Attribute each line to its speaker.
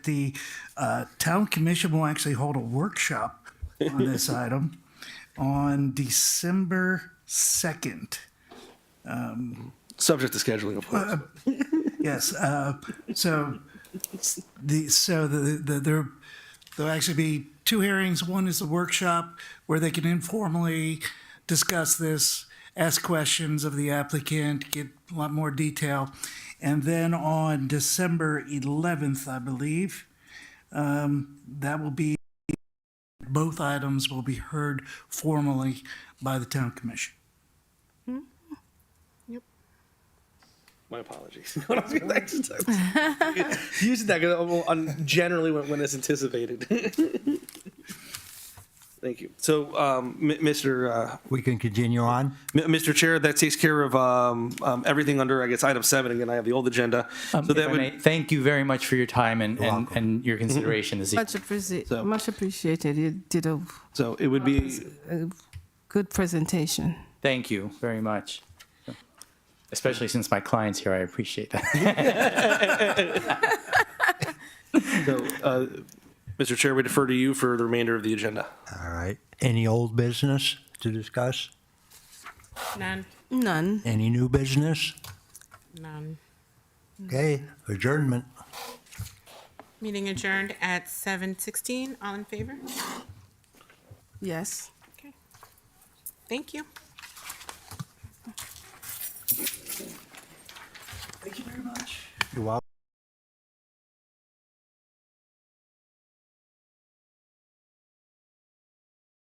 Speaker 1: The uh, town commission will actually hold a workshop on this item on December 2nd.
Speaker 2: Subject to scheduling, of course.
Speaker 1: Yes, uh, so the, so the, the, there, there'll actually be two hearings. One is a workshop where they can informally discuss this, ask questions of the applicant, get a lot more detail. And then on December 11th, I believe, um, that will be, both items will be heard formally by the town commission.
Speaker 2: My apologies. What I was gonna- I just- I was- Using that 'cause I'm on generally when, when it's anticipated. Thank you. So, um, M- Mr. Uh,
Speaker 3: We can continue on.
Speaker 2: M- Mr. Chair, that takes care of um, um, everything under I guess item seven. Again, I have the old agenda.
Speaker 4: Um,
Speaker 2: so
Speaker 4: if
Speaker 2: that
Speaker 4: I
Speaker 2: would. Mm-hmm.
Speaker 4: may, thank you very much for your time and, and,
Speaker 3: welcome.
Speaker 4: and your consideration this evening.
Speaker 5: Much appreciated. Much appreciated. You did a,
Speaker 2: So it would be.
Speaker 5: a good presentation.
Speaker 4: Thank you very much. Especially since my client's here, I appreciate that.
Speaker 2: So, uh, Mr. Chair, we defer to you for the remainder of the agenda.
Speaker 3: All right. Any old business to discuss?
Speaker 6: None.
Speaker 5: None.
Speaker 3: Any new business?
Speaker 6: None.
Speaker 3: Okay, adjournment.
Speaker 6: Meeting adjourned at seven sixteen. All in favor?
Speaker 5: Yes.
Speaker 6: Okay. Thank you.